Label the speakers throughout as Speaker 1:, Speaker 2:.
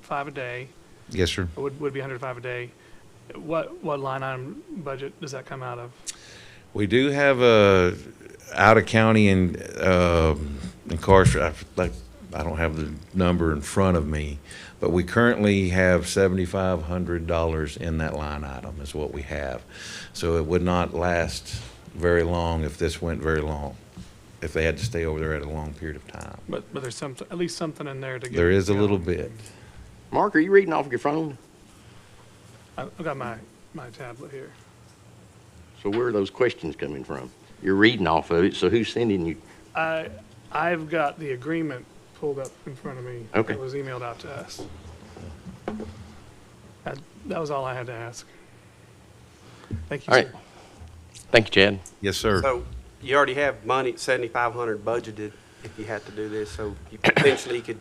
Speaker 1: five a day,
Speaker 2: Yes, sir.
Speaker 1: would, would be hundred five a day. What, what line item budget does that come out of?
Speaker 2: We do have a out of county and uh, incarcerated. Like I don't have the number in front of me, but we currently have seventy five hundred dollars in that line item is what we have. So it would not last very long if this went very long. If they had to stay over there at a long period of time,
Speaker 1: But, but there's some, at least something in there to get.
Speaker 2: there is a
Speaker 1: going.
Speaker 2: little bit.
Speaker 3: Mark, are you reading off your phone?
Speaker 1: I- I've got my, my tablet here.
Speaker 3: So where are those questions coming from? You're reading off of it, so who's sending you?
Speaker 1: I, I've got the agreement pulled up in front of me.
Speaker 3: Okay.
Speaker 1: That was emailed out to us. That, that was all I had to ask. Thank you,
Speaker 3: All right.
Speaker 1: sir.
Speaker 3: Thank you, Chad.
Speaker 2: Yes, sir.
Speaker 4: So you already have money, seventy-five hundred budgeted if you had to do this, so you potentially could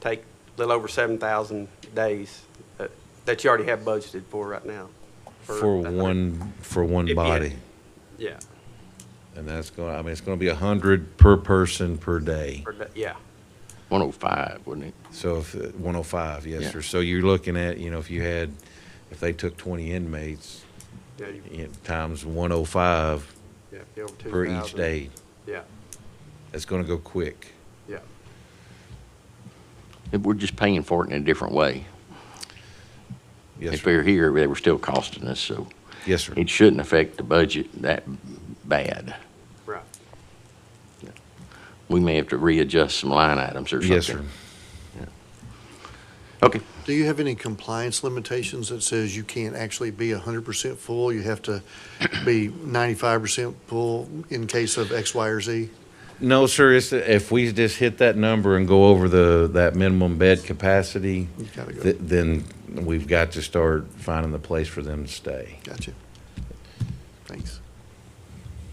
Speaker 4: take a little over seven thousand days uh, that you already have budgeted for right now.
Speaker 2: For
Speaker 4: that-
Speaker 2: one for
Speaker 4: If
Speaker 2: one
Speaker 4: you had-
Speaker 2: body.
Speaker 4: Yeah,
Speaker 2: And that's going, I mean, it's going to be a hundred per person per day.
Speaker 4: for that- yeah.
Speaker 3: 105, wasn't it?
Speaker 2: So if, uh, 105, yes,
Speaker 3: Yeah.
Speaker 2: sir. So you're looking at, you know, if you had, if they took 20 inmates,
Speaker 4: yeah, you-
Speaker 2: you know, times 105
Speaker 4: yeah, if you're over
Speaker 2: per each
Speaker 4: 2,000,
Speaker 2: day,
Speaker 4: Yeah,
Speaker 2: that's going to go quick.
Speaker 4: yeah.
Speaker 3: If We're just paying for it in a different way.
Speaker 2: Yes,
Speaker 3: If
Speaker 2: sir.
Speaker 3: they were here, they were still costing us, so
Speaker 2: Yes, sir.
Speaker 3: it shouldn't affect the budget that bad.
Speaker 4: Right.
Speaker 3: We may have to readjust some line items or something.
Speaker 2: Yes, sir.
Speaker 3: Okay.
Speaker 5: Do you have any compliance limitations that says you can't actually be hundred percent full? You have to be ninety-five percent full in case of X, Y, or Z?
Speaker 2: No, sir, it's, if we just hit that number and go over the, that minimum bed capacity,
Speaker 5: You gotta go.
Speaker 2: th- then we've got to start finding the place for them to stay.
Speaker 5: Gotcha. Thanks.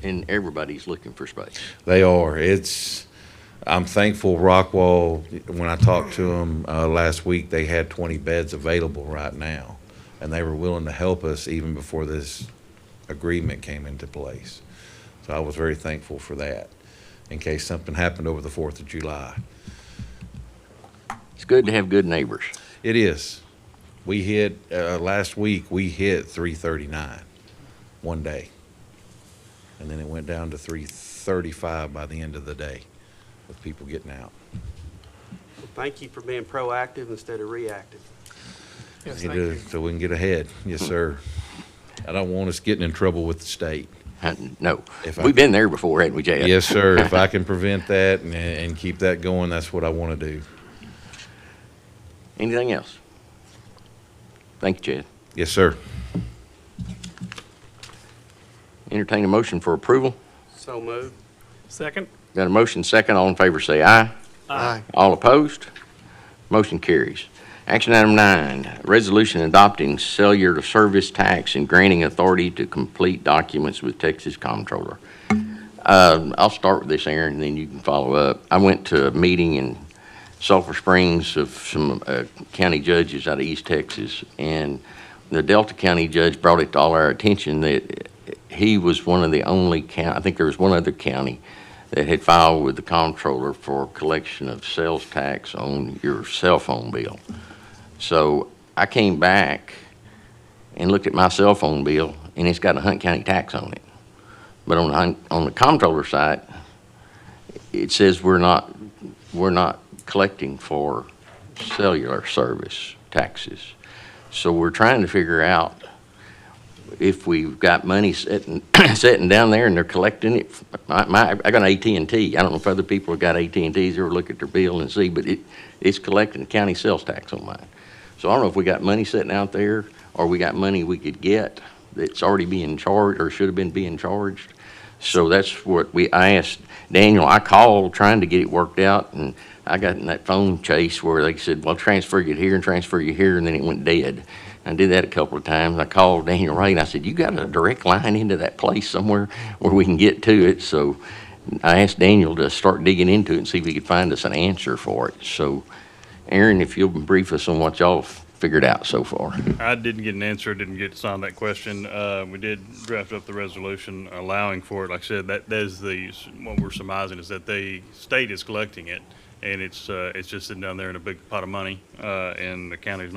Speaker 3: And everybody's looking for space.
Speaker 2: They are. It's. I'm thankful Rockwall. When I talked to them uh, last week, they had 20 beds available right now, and they were willing to help us even before this agreement came into place. So I was very thankful for that. In case something happened over the 4th of July,
Speaker 3: It's good to have good neighbors.
Speaker 2: it is. We hit uh, last week. We hit 339, one day, and then it went down to 335 by the end of the day, with people getting out.
Speaker 4: Well, Thank you for being proactive instead of reactive.
Speaker 1: Yes,
Speaker 2: It
Speaker 1: thank you.
Speaker 2: is, so we can get ahead. Yes, sir. I don't want us getting in trouble with the state.
Speaker 3: Uh, No,
Speaker 2: If I-
Speaker 3: we've been there before, haven't we, Chad?
Speaker 2: Yes, sir. If I can prevent that and, and keep that going, that's what I want to do.
Speaker 3: Anything else? Thank you, Chad.
Speaker 2: Yes, sir.
Speaker 3: Entertain a motion for approval.
Speaker 4: So moved.
Speaker 1: Second?
Speaker 3: Got a motion second. All in favor say aye.
Speaker 1: Uh,
Speaker 5: Aye.
Speaker 3: All opposed? Motion carries. Action item nine, resolution adopting cellular service tax and granting authority to complete documents with Texas Comptroller. Um, I'll start with this, Aaron, and then you can follow up. I went to a meeting in Sulphur Springs of some uh, county judges out of East Texas, and the Delta County judge brought it to all our attention that he was one of the only county, I think there was one other county, that had filed with the comptroller for collection of sales tax on your cell phone bill. So I came back and looked at my cell phone bill, and it's got a Hunt County tax on it. But on the, Hunt- on the comptroller side, it says we're not, we're not collecting for cellular service taxes. So we're trying to figure out if we've got money sitting, sitting down there and they're collecting it. My, my, I got an AT&T. I don't know if other people have got AT&Ts or look at their bill and see, but it, it's collecting county sales tax on mine. So I don't know if we got money sitting out there or we got money we could get that's already being charged or should have been being charged. So that's what we, I asked Daniel, I called trying to get it worked out and I got in that phone chase where they said, well, transfer you here and transfer you here, and then it went dead. I did that a couple of times. I called Daniel Ray and I said, you got a direct line into that place somewhere where we can get to it? So I asked Daniel to start digging into it and see if he could find us an answer for it. So Aaron, if you'll brief us on what y'all figured out so far.
Speaker 6: I didn't get an answer, didn't get signed that question. Uh, we did draft up the resolution allowing for it. Like I said, that, that is the, what we're surmising is that the state is collecting it and it's, uh, it's just sitting down there in a big pot of money, uh, and the county's